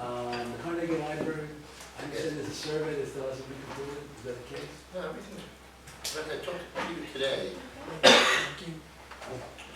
Um, survey that still hasn't been completed, is that the case? No, everything, but I talked to you today,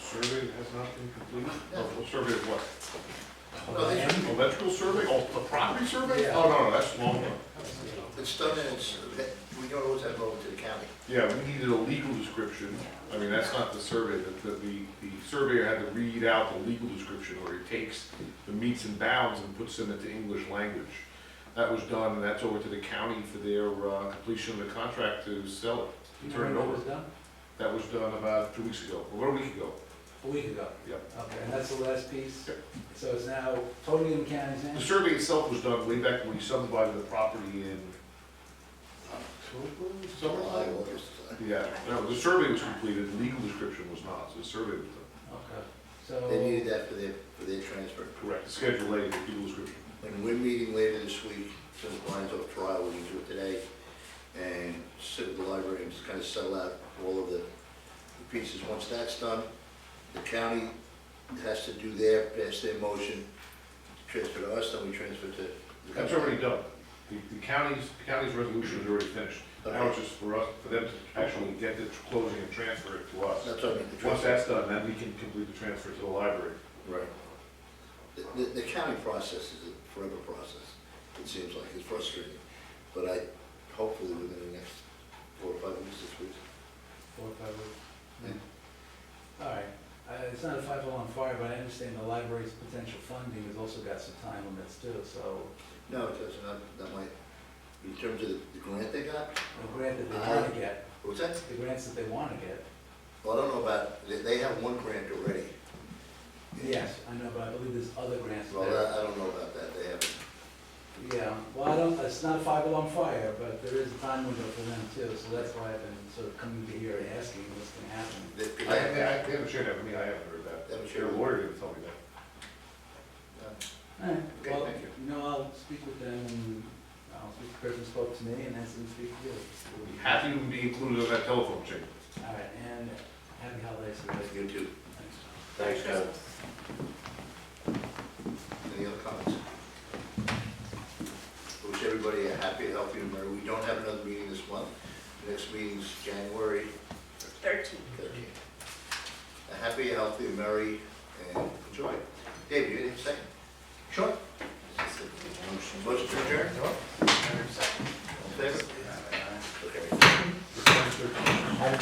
Survey has not been completed? No. Oh, Survey of what? no, they, Electrical survey, oh, the property survey? Yeah. Oh, no, no, that's long one. it's done and it's, that- we don't always have it over to the county. Yeah, we needed a legal description. I mean, that's not the survey, that, that the, the surveyor had to read out the legal description, or he takes the meets and bounds and puts them into English language. That was done, and that's over to the county for their uh, completion of the contract to sell Do it, you to know turn it when over. was done? That was done about two weeks ago, or about a week ago. A week ago. Yep. Okay, and that's the last piece? Yep. So it's now totally in the county's The hands? survey itself was done way back when we subdivided the property in October, summer, July, August. Yeah, no, the survey was completed, the legal description was not, so the survey was done. Okay, They so, needed that for their, for their transfer. Correct. Schedule A, the legal description. And we're meeting later this week, since Brian's off trial, we can do it today, and sit at the library and just kind of settle out all of the the pieces. Once that's done, the county has to do their, pass their motion, transfer to us, then we transfer to. the That's already done. The, the county's, the county's resolution is already finished. Now it's just for us, for them to actually get the closing and transfer it to us. That's what I mean, the Once transfer. that's done, then we can complete the transfer to the library. Right. The, the- the county process is a forever process, it seems like, it's frustrating, but I, hopefully within the next four or five weeks, six weeks. four, five weeks. All right, Uh, it's not a five oh one fire, but I understand the library's potential funding has also got some time limits too, so No, it doesn't, That- that might, in terms of the the grant they got, the grant that they Uh-huh. want to get, what's that? the grants that they want to get. Well, I don't know about, they, they have one grant already. Yes, I know, but I believe there's other grants Well, there. I, I don't know about that, they haven't. Yeah, well, I don't, it's not a five alarm fire, but there is a time window for them too, so that's why I've been sort of coming to here and asking what's gonna happen. they- they I, I, I haven't- haven't shared that with me, I haven't heard They haven't that. shared it. Your lawyer didn't tell me that. All right, Okay, well, thank you. you know, I'll speak with them, and uh, I'll speak to the person who spoke to me, and ask them to speak to you. We'll be Happy to be included on that telephone chain. All right, and happy holidays to That's you. good too. Thanks. Thanks, Kevin. Any other comments? Wish everybody a happy, healthy New Year. We don't have another meeting this month. Next meeting's January Thirteen. thirteenth. A happy, healthy, merry, and enjoy. Dave, you didn't say? Sure. Motion to adjourn? All in favor? Okay.